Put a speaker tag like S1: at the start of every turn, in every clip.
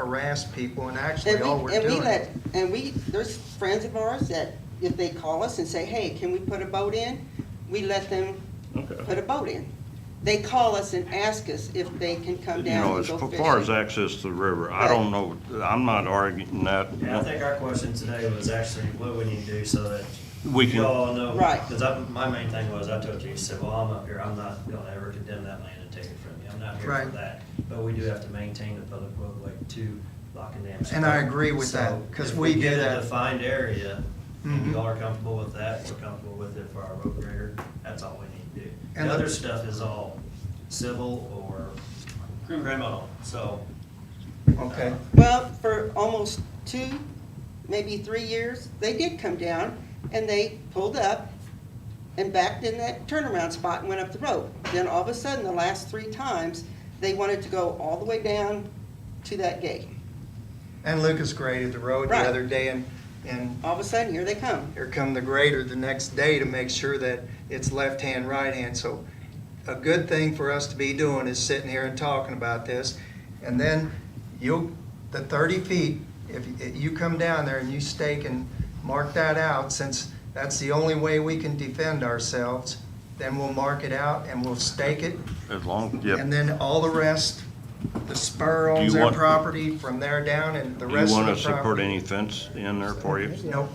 S1: harass people, and actually,
S2: And
S1: all
S2: we,
S1: we're
S2: and we
S1: doing.
S2: let, and we, there's friends of ours that if they call us and say, hey, can we put a boat in? We let them
S3: Okay.
S2: put a boat in. They call us and ask us if they can come
S3: You know,
S2: down and
S3: as
S2: go fishing.
S3: far as access to the river, I don't know, I'm not arguing that.
S4: Yeah, I think our question today was actually what we need to do so that
S3: We can-
S4: you all know.
S2: Right.
S4: Because my main thing was, I told you, you said, well, I'm up here, I'm not gonna ever condemn that land and take it from you. I'm not here
S1: Right.
S4: for that. But we do have to maintain the public roadway to Lock and Dam.
S1: And I agree with
S4: So,
S1: that, 'cause
S4: if
S1: we do
S4: get a
S1: that.
S4: Defined area, and
S1: Mhm.
S4: you all are comfortable with that, we're comfortable with it for our road grader, that's all we need to do.
S1: And
S4: The
S1: the-
S4: other stuff is all civil or criminal, so.
S1: Okay.
S2: Well, for almost two, maybe three years, they did come down and they pulled up and backed in that turnaround spot and went up the road. Then all of a sudden, the last three times, they wanted to go all the way down to that gate.
S1: And Lucas graded the road the
S2: Right.
S1: other day, and, and
S2: All of a sudden, here they come.
S1: here come the grader the next day to make sure that it's left hand, right hand. So a good thing for us to be doing is sitting here and talking about this. And then you, the thirty feet, if if you come down there and you stake and mark that out, since that's the only way we can defend ourselves, then we'll mark it out and we'll stake it
S3: As long, yeah.
S1: And then all the rest, the spur
S3: Do
S1: owns
S3: you
S1: their
S3: want-
S1: property from there down and the
S3: You
S1: rest
S3: want
S1: of
S3: us
S1: the
S3: to put
S1: property.
S3: any fence in there for you?
S1: Nope,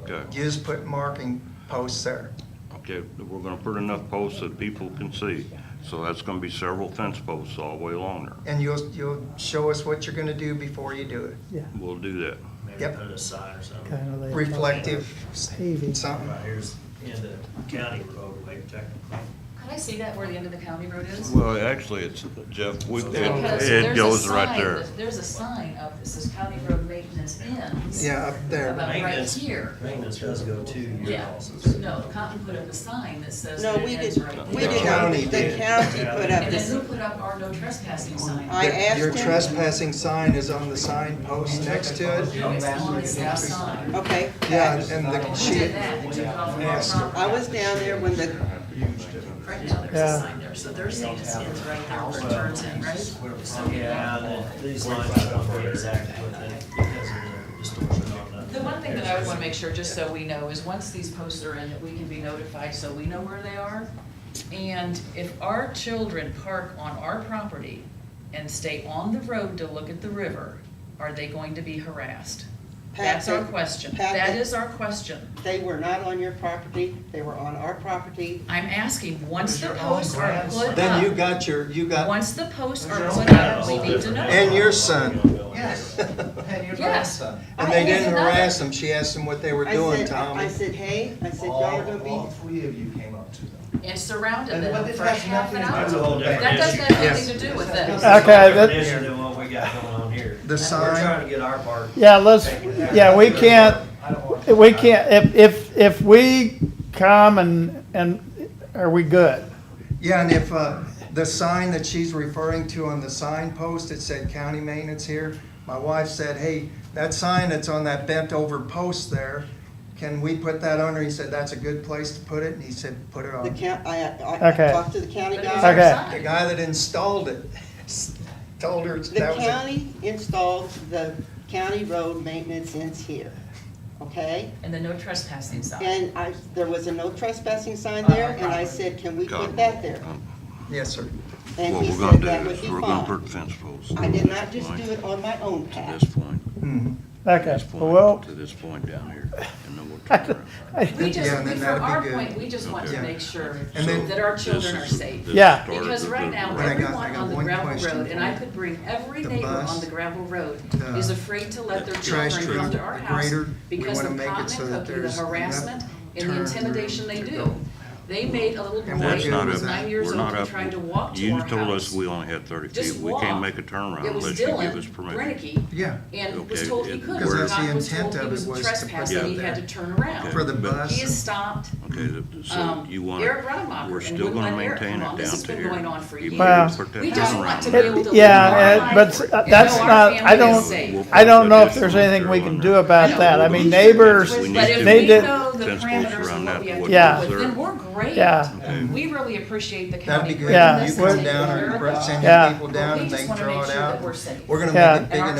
S3: Okay,
S1: you just put marking posts there.
S3: okay, we're gonna put enough posts that people can see. So that's gonna be several fence posts all the way along there.
S1: And you'll, you'll show us what you're gonna do before you do it.
S5: Yeah,
S3: We'll do that.
S4: Maybe
S1: Yep.
S4: put a sign or something.
S5: kind of like.
S1: Reflective s-
S5: Paving.
S1: something.
S4: Right here's in the county roadway technically.
S6: Could I see that where the end of the county road is?
S3: Well, actually, it's, Jeff, we-
S6: Because
S3: it, it
S6: there's a
S3: goes right
S6: sign
S3: there.
S6: that- There's a sign up that says county road maintenance ends.
S1: Yeah, up there.
S6: About right
S4: Maintenance-
S6: here.
S4: Maintenance does go to your
S6: Yeah,
S4: houses.
S6: no, Cotton put up a sign that says
S2: No,
S6: that
S2: we
S6: it
S2: did,
S6: ends right
S2: we
S6: there.
S2: did not,
S1: county
S2: the
S1: did.
S2: county put up
S6: And then
S2: this,
S6: who put up our no trespassing sign?
S2: I asked
S1: Your
S2: him.
S1: trespassing sign is on the sign post next to it.
S6: No, it's on the south side.
S2: okay.
S1: Yeah, and the,
S6: Who
S1: she,
S6: did that? They took it off of
S1: Yes.
S6: our
S2: I
S6: property.
S2: was down there when the,
S6: Right now, there's a
S5: Yeah.
S6: sign there, so they're saying it's ends right there where it turns in, right? So-
S4: Yeah, and then these lines don't be exact with it because of the distortion on the.
S6: The one thing that I would want to make sure, just so we know, is once these posts are in, that we can be notified so we know where they are. And if our children park on our property and stay on the road to look at the river, are they going to be harassed? That's our
S2: Patrick,
S6: question.
S2: Patrick.
S6: That is our question.
S2: they were not on your property, they were on our property.
S6: I'm asking, once the
S4: Those are all
S6: posts are
S4: grass.
S6: put up.
S1: then you got your, you got,
S6: Once the posts
S4: Those are
S6: are
S4: all
S6: put
S4: grass.
S6: up, we need to know.
S1: and your son.
S4: Yes.
S6: Yes.
S1: And they
S6: I
S1: didn't
S6: asked another-
S1: harass them. She asked them what they were
S2: I
S1: doing,
S2: said-
S1: Tom.
S2: I said, hey, I said, y'all are gonna
S7: All, all
S2: be,
S7: three of you came up to them.
S6: And surrounded
S7: And what
S6: them
S7: this
S6: for
S7: has
S6: half an
S7: nothing to
S4: That's
S7: do with
S4: a
S6: hour.
S4: whole
S7: the
S4: different
S6: That doesn't
S4: issue.
S6: have anything to do with this.
S5: Okay,
S4: Different
S5: that,
S4: issue than what we got going on here.
S1: The
S4: We're
S1: sign-
S4: trying to get our part.
S5: yeah, let's, yeah, we can't,
S7: I don't want to-
S5: we can't, if, if, if we come and, and are we good?
S1: Yeah, and if, uh, the sign that she's referring to on the signpost, it said county maintenance here. My wife said, hey, that sign that's on that bent over post there, can we put that under? He said, that's a good place to put it, and he said, put it
S2: the
S1: on.
S2: count, I, I I
S5: Okay.
S2: talked to the county
S6: But it's
S2: guy.
S6: our
S5: Okay.
S6: sign.
S1: The guy that installed it told her
S2: The
S1: that was it.
S2: county installed the county road maintenance ends here, okay?
S6: And the no trespassing sign.
S2: And I, there was a no trespassing sign
S6: On our
S2: there, and I
S6: property.
S2: said, can we
S3: God.
S2: put that there?
S1: Yes, sir.
S2: And
S3: Um, What
S2: he
S3: we're
S2: said
S3: gonna
S2: that
S3: do
S2: would
S3: is
S2: be
S3: we're gonna
S2: fine.
S3: put fence posts.
S2: I
S3: to
S2: did
S3: this
S2: not just
S3: point,
S2: do it on my own
S3: To
S2: path.
S3: this point,
S1: Mm-hmm.
S5: Okay,
S3: this
S5: well,
S3: point, to this point down here, and then we'll turn around.
S6: We
S1: Yeah,
S6: just,
S1: and then
S6: we- from
S1: that'd be
S6: our
S1: good.
S6: point, we just want to
S1: Okay.
S6: make sure
S1: And then-
S6: that our
S3: This
S6: children are
S3: is-
S6: safe.
S3: this
S5: Yeah.
S3: started
S6: Because
S3: the-
S6: right now,
S3: the-
S1: But I got- I
S6: everyone
S1: got
S6: on the
S1: one
S6: gravel
S1: question
S6: road, and
S1: for
S6: I
S1: you.
S6: could bring every
S1: The
S6: neighbor
S1: bus,
S6: on the gravel road,
S1: the-
S6: is afraid to let their
S1: the trash
S6: children come
S1: truck,
S6: to our
S1: the
S6: house
S1: grader, we
S6: because
S1: wanna
S6: of
S1: make it
S6: cotton
S1: so
S6: and
S1: that
S6: cookie, the
S1: there's enough
S6: harassment, and
S1: turn
S6: the intimidation
S1: room
S6: they
S1: to
S6: do.
S1: go.
S6: They made a little boy
S1: And we're
S6: who
S1: good
S6: was
S1: with that.
S6: nine years
S3: We're
S6: old
S3: not
S6: who
S3: up.
S6: tried to walk to our
S3: You
S6: house.
S3: told us we only had thirty
S6: Just
S3: feet. We can't
S6: walk.
S3: make a turnaround
S6: It was
S3: unless you give us
S6: Dylan
S3: permission.
S6: Brennicky,
S1: Yeah,
S6: and was
S3: Okay,
S6: told he
S3: it-
S6: couldn't,
S3: Because
S1: that's the
S6: Doc was
S1: intent
S6: told he
S1: of it
S6: was
S1: was to put
S6: trespassing,
S3: that
S6: he
S1: there.
S6: had to turn around.
S1: for the
S3: But-
S1: bus.
S6: He is stopped,
S3: Okay, th- so
S6: um,
S3: you want,
S6: Eric Rademacher.
S3: we're
S6: and
S3: still
S6: wouldn't
S3: gonna
S6: let Eric
S3: maintain it
S6: come on. This
S3: down
S6: has
S3: to
S6: been
S3: here.
S6: going on for
S3: Even if
S5: Well,
S6: years.
S3: we put that
S6: We just
S3: turnaround
S6: want to be
S3: there.
S6: able to live
S5: yeah,
S6: our
S5: uh, but
S6: lives
S5: s-
S6: and
S5: that's
S6: know our
S5: not, I
S6: family is
S5: don't,
S6: safe.
S5: I don't know if there's anything we can do about that. I mean, neighbors,
S3: We need
S6: But if
S3: to
S5: they
S6: we
S5: did,
S6: know the
S3: fence posts
S6: parameters
S3: around
S6: and
S3: that
S6: what we have to
S3: wood
S5: Yeah.
S6: deal with, then we're great.
S5: Yeah.
S6: We really appreciate the
S1: That'd
S6: county.
S1: be good.
S5: Yeah.
S1: You
S6: bringing us
S1: come
S6: to
S1: down
S6: take
S1: or
S6: care of
S1: send
S6: us.
S1: your
S5: Yeah.
S1: people down
S6: We
S1: and
S6: just
S1: they
S6: wanna
S1: draw
S6: make
S1: it
S6: sure that
S1: out.
S6: we're safe.
S1: We're gonna make
S5: Yeah.
S1: it
S6: And
S1: big
S6: our
S1: enough